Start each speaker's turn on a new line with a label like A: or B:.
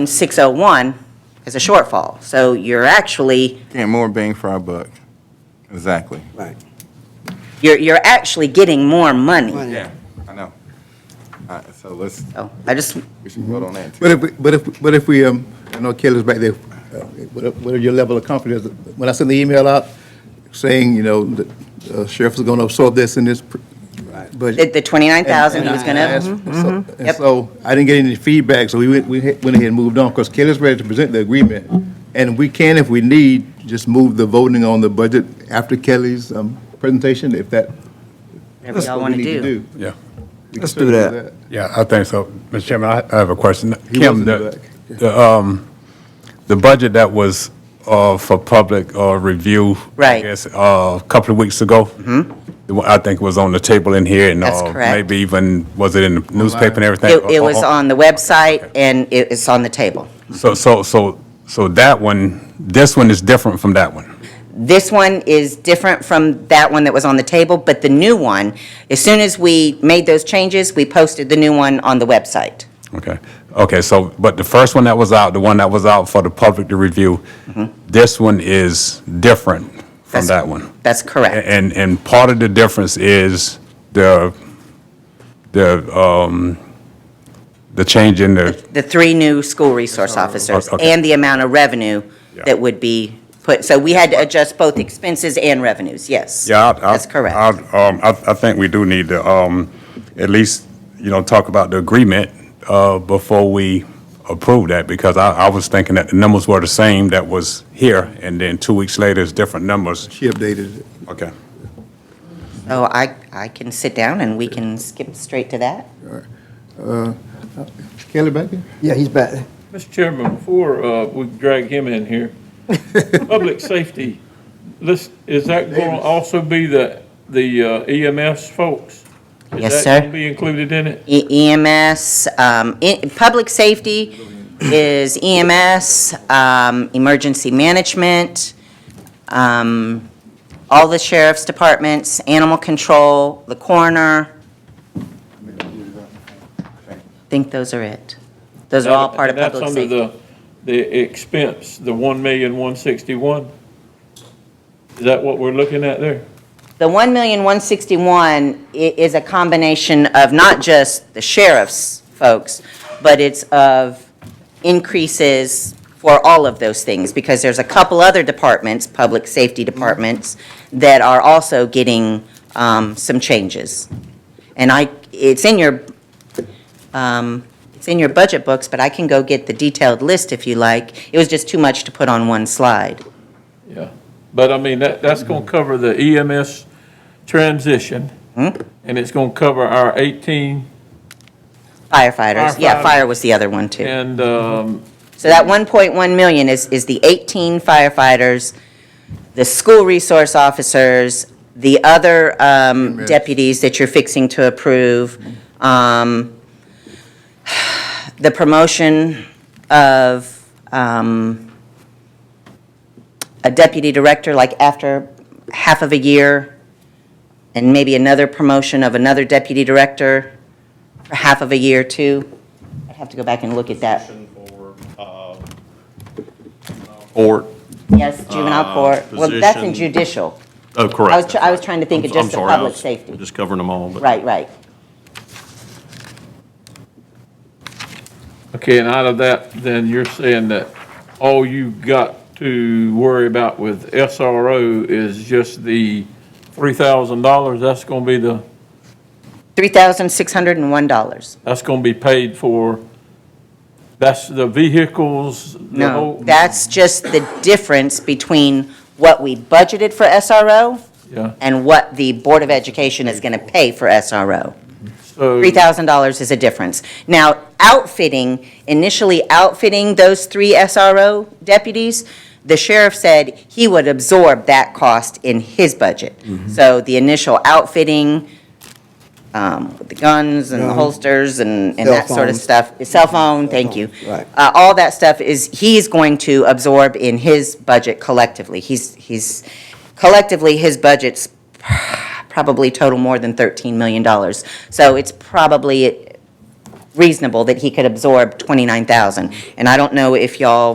A: 601 is a shortfall. So you're actually,
B: Getting more bang for our buck. Exactly.
C: Right.
A: you're, you're actually getting more money.
B: Yeah, I know. All right, so let's,
A: So I just,
B: we should vote on that. too.
D: But if, we- but if, but if we, um, I know Kelly's back there, uh, what what are your level of confidence? When I send the email out saying, you know, the uh, sheriff is gonna absorb this in this pr-
A: the
D: budget.
A: the 29,000 he was going
D: And-
A: to,
D: and I asked- so-
A: Yep.
D: And so, I didn't get any feedback, so we went, we hit- went ahead and moved on, because Kelly's ready to present the agreement. And we can, if we need, just move the voting on the budget after Kelly's, um, presentation, if that.
A: whatever
D: that's
A: mm-hmm, y'all
D: what
A: want
D: we
A: to
D: need
A: do.
E: Yeah,
D: We can
C: Let's do
D: certainly
C: that.
E: yeah, I think so. Mr. Chairman, I I have a question.
D: He wasn't
E: Kim, the,
D: back.
E: the, um, the budget that was uh, for public uh, review.
A: Right. Mm-hmm.
E: I guess, uh, a couple of weeks ago. The one I think was on the table in here and.
A: That's
E: uh,
A: correct.
E: Maybe even, was it in the newspaper and everything?
A: It, it was
E: Uh, uh,
A: on the website and it- it's on the table.
E: So, so, so, so that one, this one is different from that one.
A: This one is different from that one that was on the table, but the new one, as soon as we made those changes, we posted the new one on the website.
E: Okay, okay, so, but the first one that was out, the one that was out for the public to review, this one is different from
A: Mm-hmm. That's-
E: that one.
A: That's correct.
E: And, and part of the difference is the, the, um, the change in the,
A: the three new school resource officers
E: Okay.
A: and the amount of revenue that would be put, so we had to adjust both expenses and revenues, yes.
E: yeah. I- I-
A: That's correct.
E: I, um, I, I think we do need to, um, at least, you know, talk about the agreement, uh, before we approve that, because I, I was thinking that the numbers were the same that was here, and then two weeks later, it's different numbers.
D: She updated it.
E: Okay.
A: So I, I can sit down and we can skip straight to that.
D: Kelly back there?
C: Yeah, he's back.
F: Mr. Chairman, before uh, we drag him in here, public safety, this, is that going to also be the, the uh, EMS folks?
A: Yes,
F: Is
A: sir.
F: that going to be included in it?
A: E- EMS, um, i- public safety is EMS, um, emergency management, um, all the sheriff's departments, animal control, the coroner. I think those are it. Those are all part of
F: And that's
A: public
F: under
A: safety.
F: the- The expense, the one million, one sixty-one? Is that what we're looking at there?
A: The 1,161 i- is a combination of not just the sheriff's folks, but it's of increases for all of those things, because there's a couple other departments, public safety departments, that are also getting um, some changes. And I, it's in your, um, it's in your budget books, but I can go get the detailed list if you like. It was just too much to put on one slide.
F: Yeah, but I mean, that, that's gonna cover the EMS transition,
A: Hmm?
F: and it's gonna cover our eighteen,
A: Firefighters, yeah,
F: Firefighters.
A: fire was the other one, too.
F: and, um,
A: So that 1.1 million is, is the 18 firefighters, the school resource officers, the other um, deputies that you're fixing to approve, um, the promotion of um, a deputy director, like after half of a year, and maybe another promotion of another deputy director for half of a year, too. I'd have to go back and look at that.
G: for, uh, Or,
A: Yes, juvenile
G: Uh,
A: court. Well, that's in
G: position-
A: judicial.
G: oh, correct.
A: I was, tr- I was trying to think of
G: I'm- I'm
A: just the
G: sorry, I
A: public
G: was
A: safety.
G: Just covering them all, but.
A: Right, right.
F: Okay, and out of that, then you're saying that all you've got to worry about with SRO is just the three thousand dollars, that's gonna be the,
A: $3,601.
F: that's gonna be paid for, that's the vehicles, the
A: No,
F: whole.
A: that's just the difference between what we budgeted for SRO
F: Yeah,
A: and what the Board of Education is going to pay for SRO.
F: so,
A: $3,000 is a difference. Now, outfitting, initially outfitting those three SRO deputies, the sheriff said he would absorb that cost in his budget. So the initial outfitting, um, with the guns and the
C: Gun.
A: holsters and, and
C: Cell
A: that sort of
C: phones.
A: stuff, cell phone, thank you.
C: right.
A: Uh, all that stuff is, he's going to absorb in his budget collectively. He's, he's, collectively, his budget's probably total more than $13 million. So it's probably reasonable that he could absorb 29,000. And I don't know if y'all